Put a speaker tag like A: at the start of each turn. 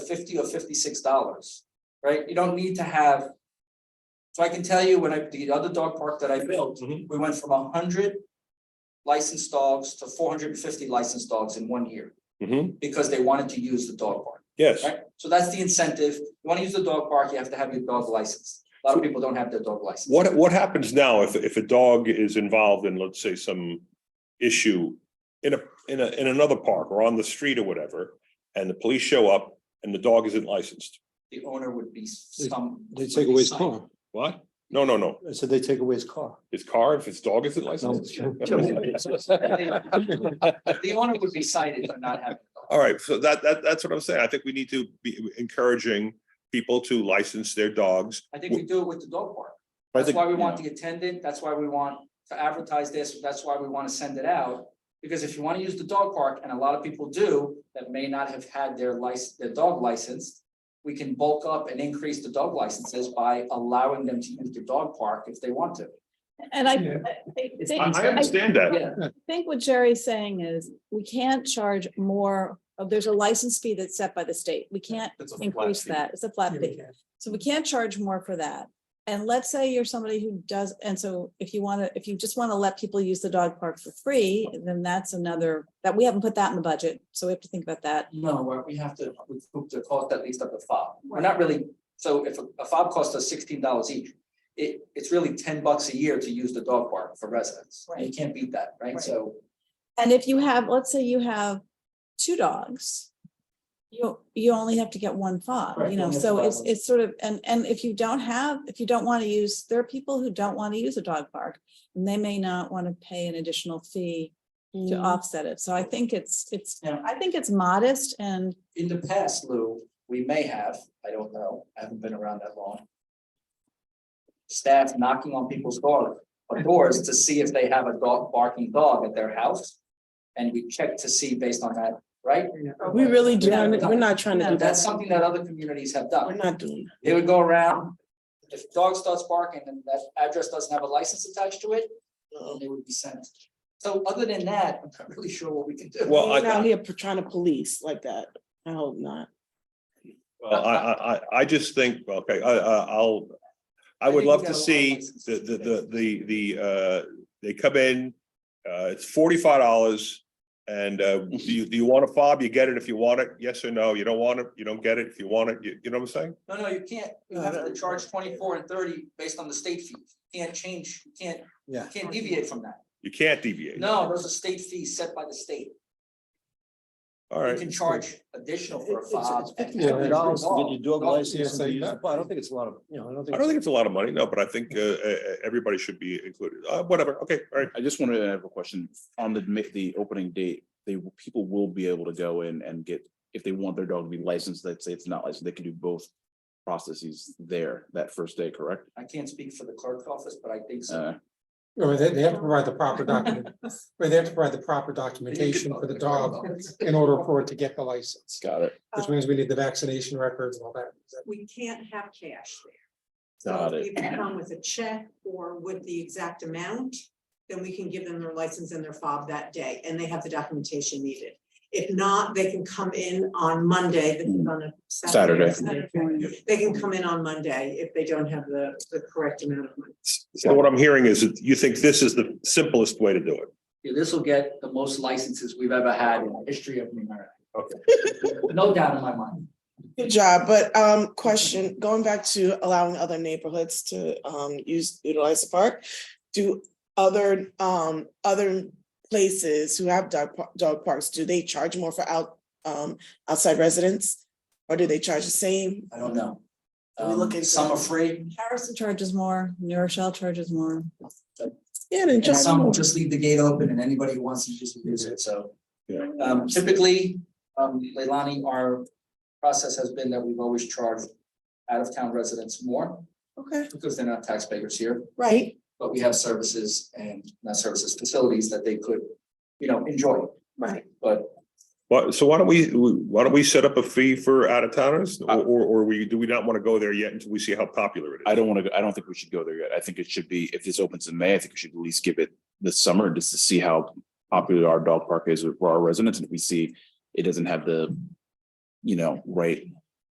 A: fifty or fifty-six dollars, right? You don't need to have. So I can tell you when I, the other dog park that I built,
B: Mm-hmm.
C: Mhm.
A: we went from hundred licensed dogs to four hundred and fifty licensed dogs in one year
C: Mhm.
A: because they wanted to use the dog park,
C: yes.
A: right? So that's the incentive. You want to use the dog park, you have to have your dog licensed. A lot of people don't have their dog license.
C: What, what happens now if, if a dog is involved in, let's say, some issue in a, in a, in another park or on the street or whatever, and the police show up and the dog isn't licensed?
A: The owner would be some.
B: They
A: would
B: take
A: be
B: away his
A: cited.
B: car.
C: What? No, no, no.
B: I said they take away his car.
C: His car, if his dog isn't
B: No.
C: licensed.
A: The owner would be cited for not having. a dog.
C: All right, so that, that, that's what I'm saying. I think we need to be encouraging people to license their dogs.
A: I think we do it with the dog park.
D: I
A: That's
D: think,
A: why we want the attendant, that's why we want to advertise this, that's why we want to send it out. Because if you want to use the dog park, and a lot of people do, that may not have had their license, their dog licensed. We can bulk up and increase the dog licenses by allowing them to use the dog park if they want to.
E: And I,
B: Yeah.
E: I
C: I,
E: think,
C: I
E: I
C: understand that.
E: think what Jerry's saying is, we can't charge more, of there's a license fee that's set by the state, we can't
D: It's a flat
E: increase
D: fee.
E: that, it's a flat fee. So we can't charge more for that. And let's say you're somebody who does, and so if you want to, if you just want to let people use the dog park for free, then that's another, that we haven't put that in the budget, so we have to think about that.
A: No, we're- we have to recoup the cost at least of the fob. We're not really, so if a- a fob costs us sixteen dollars each, it, it's really ten bucks a year to use the dog park for residents. You
E: Right.
A: can't beat that, right?
E: Right.
A: So
E: And if you have, let's say you have two dogs. You, you only have to get one fob,
A: Right,
E: you
A: you
E: know,
A: only have
E: so
A: to buy
E: it's,
A: one.
E: it's sort of, and, and if you don't have, if you don't want to use, there are people who don't want to use a dog park. And they may not want to pay an additional fee to
F: Mm.
E: offset it. So I think it's, it's,
A: Yeah.
E: I think it's modest and
A: in the past, Lou, we may have, I don't know, I haven't been around that long. Staff knocking on people's door, or doors to see if they have a dog barking dog at their house. And we check to see based on that, right?
F: We really do,
A: Yeah.
F: we're not trying to
E: No,
F: do
A: That's
F: that,
A: something that other communities have done.
F: we're not doing.
A: They would go around, if the dog starts barking and that address doesn't have a license attached to it, then they would be sent. So other than that, I'm not really sure what we can do.
C: Well,
F: Well,
C: I-
F: I'm out here p- trying to police like that, I hope not.
C: Well, I, I, I, I just think, okay, I, I, I'll, I
A: I
C: would
A: think
C: love
A: we got a lot
C: to
A: of
C: see
A: licenses
C: the, the,
A: today.
C: the, the, the, uh, they come in, uh, it's forty-five dollars. And, uh, do you, do you want a fob? You get it if you want it, yes or no, you don't want it, you don't get it, if you want it, you, you know what I'm saying?
A: No, no, you can't, you have to charge twenty-four and thirty based on the state fee, can't change, you can't,
B: Yeah.
A: you can't deviate from that.
C: You can't deviate.
A: No, those are state fees set by the state,
C: All
A: you
C: right,
A: can charge additional for a
F: It's- it's-
A: fob.
F: it's
A: and-
B: Fifty dollars to get your dog
A: Dog-
B: license.
A: Yeah,
B: and use it. But I don't think it's a lot of, you know, I don't think.
C: I don't think it's a lot of money, no, but I think, uh, uh, everybody should be included, uh, whatever, okay, all right.
D: I just wanted to have a question on the, ma- the opening date. They, will- people will be able to go in and get, if they want their dog to be licensed, let's say it's not licensed, they can do both processes there that first day, correct?
A: I can't speak for the clerk's office, but I think so.
D: Uh,
G: Or they, they have to provide the proper document, or they have to provide the proper documentation for the dog in order for it to get the license,
D: got it,
G: which means we need the vaccination records and all that.
H: Oh, we can't have cash there.
D: Got
H: So
D: it.
H: if they come with a check or with the exact amount, then we can give them their license and their fob that day, and they have the documentation needed. If not, they can come in on Monday, this is on a Saturday. Saturday. They can come in on Monday if they don't have the, the correct amount of money.
C: So what I'm hearing is that you think this is the simplest way to do it.
A: Yeah, this will get the most licenses we've ever had in the history of New America. Okay. No doubt in my mind.
F: Good job, but um, question, going back to allowing other neighborhoods to um use utilize the park. Do other um other places who have dog par- dog parks, do they charge more for out um outside residents? Or do they charge the same?
A: I don't know.
F: Are we
A: Um,
F: looking
A: Some
F: for-
A: are free,
E: Harrison charges more, New Rochelle charges more.
F: Yeah, then
A: and
F: just.
A: some will just leave the gate open and anybody who wants to just use it, so.
C: Yeah.
A: Um, typically, um, Leilani, our process has been that we've always charged out of town residents more
F: Okay,
A: because they're not taxpayers here,
F: right,
A: but we have services and not services, facilities that they could, you know, enjoy.
F: right.
A: But
C: Well, so why don't we, why don't we set up a fee for out of towners or, or or we, do we not want to go there yet until we see how popular it is?
D: I don't want to, I don't think we should go there yet. I think it should be, if this opens in May, I think we should at least give it this summer just to see how popular our dog park is for our residents. And if we see it doesn't have the, you know, right